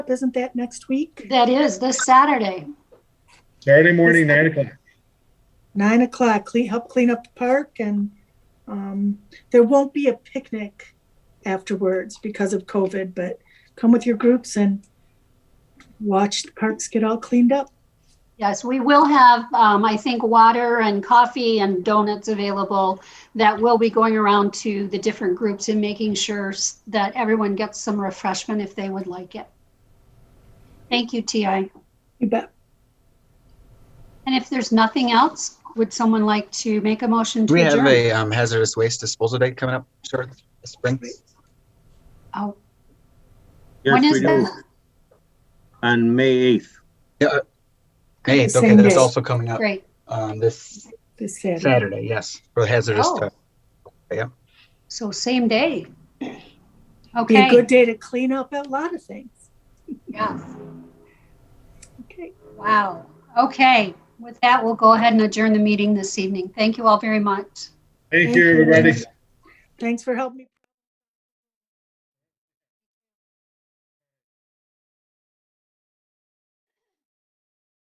Isn't that next week? That is this Saturday. Saturday morning, nine o'clock. Nine o'clock, clean, help clean up the park and, um, there won't be a picnic afterwards because of COVID, but come with your groups and watch the parks get all cleaned up. Yes, we will have, um, I think, water and coffee and donuts available that will be going around to the different groups and making sure s- that everyone gets some refreshment if they would like it. Thank you, TI. You bet. And if there's nothing else, would someone like to make a motion Do to we have adjourn? a um, hazardous waste disposal day coming up, sir, this spring? Oh, When Yes, is we do. that? On May 8th. Hey, The okay, same that's day. also coming up Great. um, this This Saturday. Saturday, yes, for hazardous Oh. stuff. So same day. Be a Okay, good day to clean up a lot of things. yeah, Okay. wow. Okay, with that, we'll go ahead and adjourn the meeting this evening. Thank you all very much. Thank Thank you. you, everybody. Thanks for helping me.